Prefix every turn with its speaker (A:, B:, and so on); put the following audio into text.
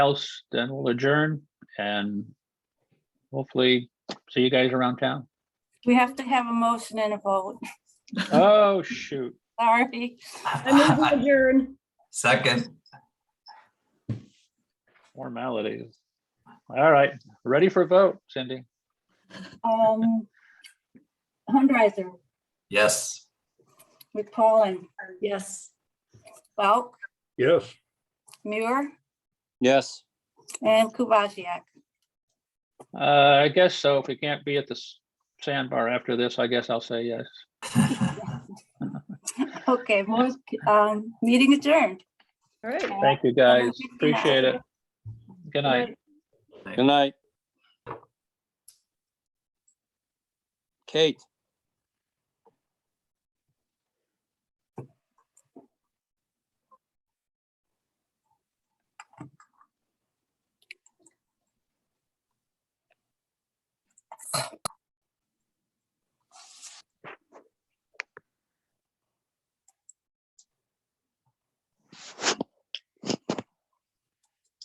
A: else, then we'll adjourn and hopefully see you guys around town.
B: We have to have a motion and a vote.
A: Oh, shoot.
B: Sorry.
C: I move to adjourn.
D: Second,
A: Formalities. All right, ready for a vote, Cindy?
B: Um, Hunterizer,
D: yes.
B: McPollin,
C: Yes.
B: Balk,
E: Yes.
B: Muir,
F: Yes.
B: and Kubatsiak.
A: Uh, I guess so. If we can't be at the s- sandbar after this, I guess I'll say yes.
B: Okay, most, um, meeting adjourned.
C: All right.
A: Thank you, guys. Appreciate it. Good night.
F: Good night. Kate?